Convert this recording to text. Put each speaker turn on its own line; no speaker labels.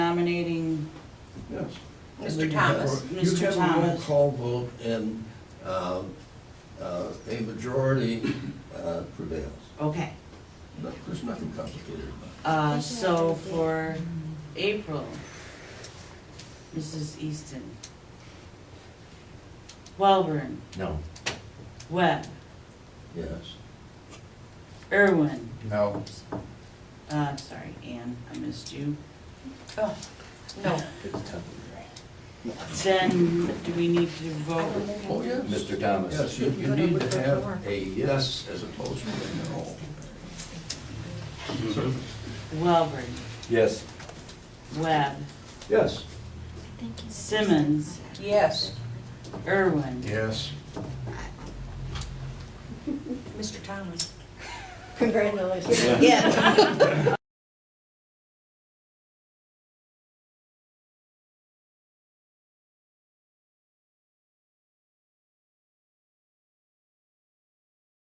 Mr. Thomas.
You
Mr.
have a roll
Thomas.
call vote and um, uh, a majority uh, prevails.
Okay,
No, There's nothing complicated about
uh,
it.
so for April, Mrs. Easton. Welborn,
No.
Webb,
Yes.
Irwin,
No.
uh, I'm sorry, Ann, I missed you.
Oh, no.
Then, do we need to vote?
Oh,
Well,
yes.
Mr. Thomas.
Yes, you you
But I
need
would
to
vote for.
have a yes as opposed to a no.
Welborn,
Yes.
Webb,
Yes.
Simmons,
Yes,
Irwin.
Yes.
Mr. Thomas.
Congratulations.
Yeah.
Yeah.